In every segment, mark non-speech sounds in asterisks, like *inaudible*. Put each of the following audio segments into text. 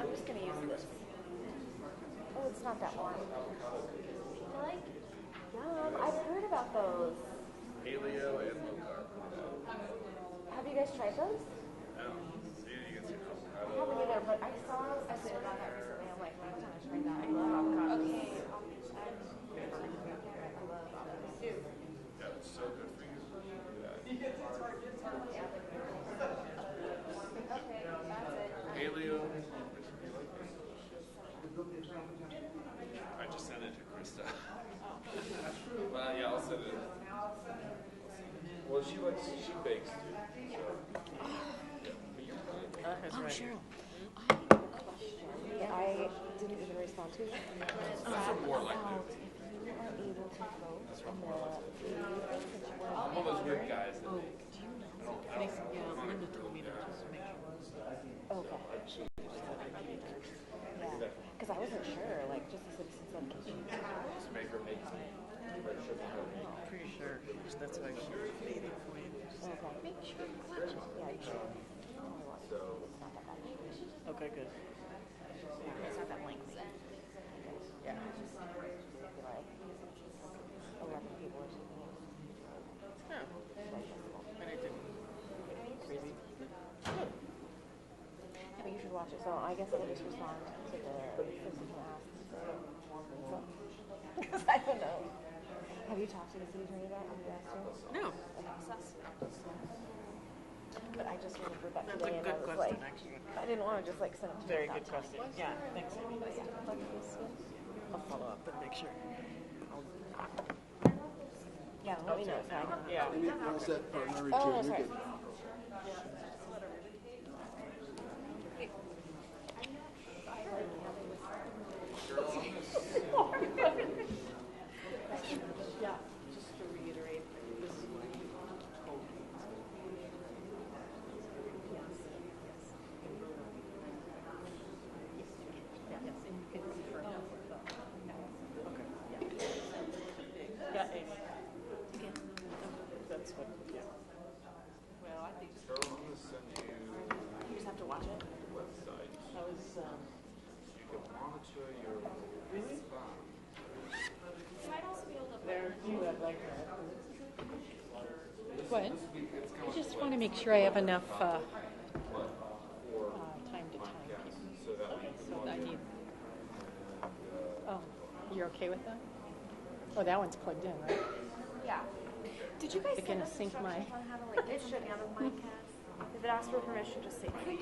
Oh, It's not that warm. They're like, yum. I've heard about those. Paleo and low carb. Have you guys tried those? Um, so you can see I avocado. haven't either, but I saw I saw about that recently. I'm like, I'm gonna try that. I love avocados. Okay. Yeah, it's so good for you. Yeah. Okay, that's it. Paleo. I just sent it to Krista. *laughs* well, yeah, I'll send it. Well, she likes she bakes too. So. Yeah, but you're fine. Oh, Cheryl. I, I didn't even respond to you. That's a more like Out if you are able to vote in the I'm one of those weird guys Oh. that make. Okay. Yeah, because I wasn't sure, like, just as citizens of Kitchen. Just make her make red sugar cookies. Pretty sure that's why she made it for you. Okay. Make sure you watch it. Yeah, you should. Oh, I watched it. It's not that bad. Okay, good. Yeah, It's not that lengthy. Yeah. Maybe like eleven people or something. Yeah, It's digestible. Oh, and it didn't really. I mean, you should watch it. So I guess I'll just respond to the person who asked. So, *laughs* I don't know. Have you talked to the city attorney about it? Have you asked her? No, But I just remembered that that's a today, and I good was question, like, actually. I didn't want to just like send it to Very her. good question. Yeah, thanks. I'll follow up and make sure. Yeah, Oh, let me know. if I- Yeah. And it was that partner Oh, too. that's We right. could, *laughs* *laughs* Yeah, just to reiterate, this is what you told me. Yes, yes. Yes, and you can confirm. Okay. Yeah, Amy. That's what, yeah. Well, I think Carol, I'm gonna send you you just have to watch it. the website. I was, um, You can monitor your response. there, you had like that. What? I just want to make sure I have enough uh, uh, time to time people. So I need. Oh, you're okay with that? Oh, that one's plugged in, right? Yeah. Did you guys They're send gonna us sync my- instructions on how to *laughs* like get something out of Minecraft? If it asks for permission, just say please.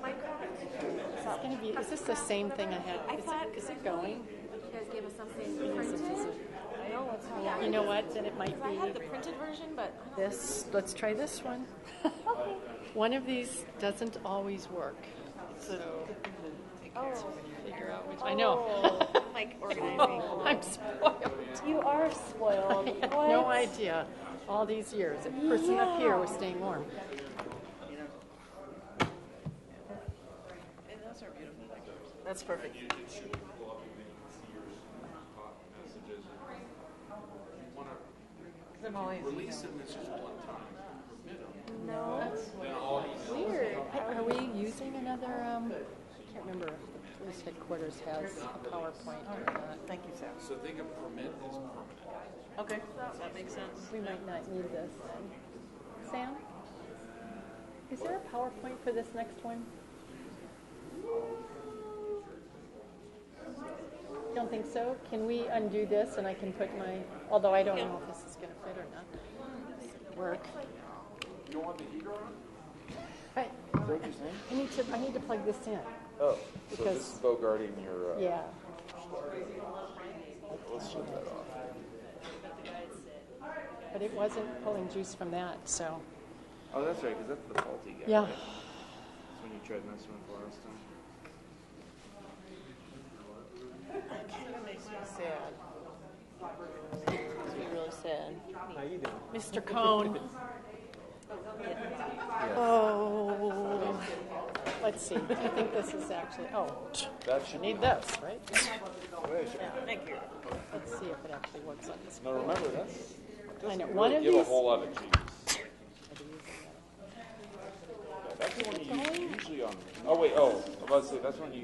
Minecraft. It's gonna be. Is this the same thing I had? I is, thought- it, is it going? You guys gave us something printed. No, it's not. You know what? Then it might I be had the printed version, but I don't this. Let's try this *laughs* one. one of these doesn't always work, so oh. figure out which. I know. *laughs* Oh, like organizing. I'm spoiled. *laughs* you are spoiled. I had *laughs* no What? idea all these years. The person up here was staying warm. And those are beautiful pictures. That's perfect. You, it should pull up and then you can see your uh, messages. You wanna I'm always. release a message one time, permit 'em, No. then all emails. Weird. Are we using another, um, I can't remember if the police headquarters has a PowerPoint or not. Thank you, Sam. So think of permit as permanent. Okay, that makes sense. We might not need this then. Sam? Is there a PowerPoint for this next one? Don't think so? Can we undo this and I can put my, although I don't know if this is gonna fit or not. Work. You don't want the heater on? I, I need to, I need to plug this in. Oh, so this is Because- Bogarting your, Yeah. let's shut that off. But it wasn't pulling juice from that, so, Oh, that's right, because that's the faulty guy. yeah. That's when you tried messing with the last time. That makes me sad. Mr. Cohn. Oh, let's see, I think this is actually, oh, That should I need this, right? Thank you. Let's see if it actually works on this. Now remember, that's, I know, doesn't one really of give a these, whole lot of cheese. Yeah, That's the one you use- usually on, oh wait, oh, I was about to say, that's when you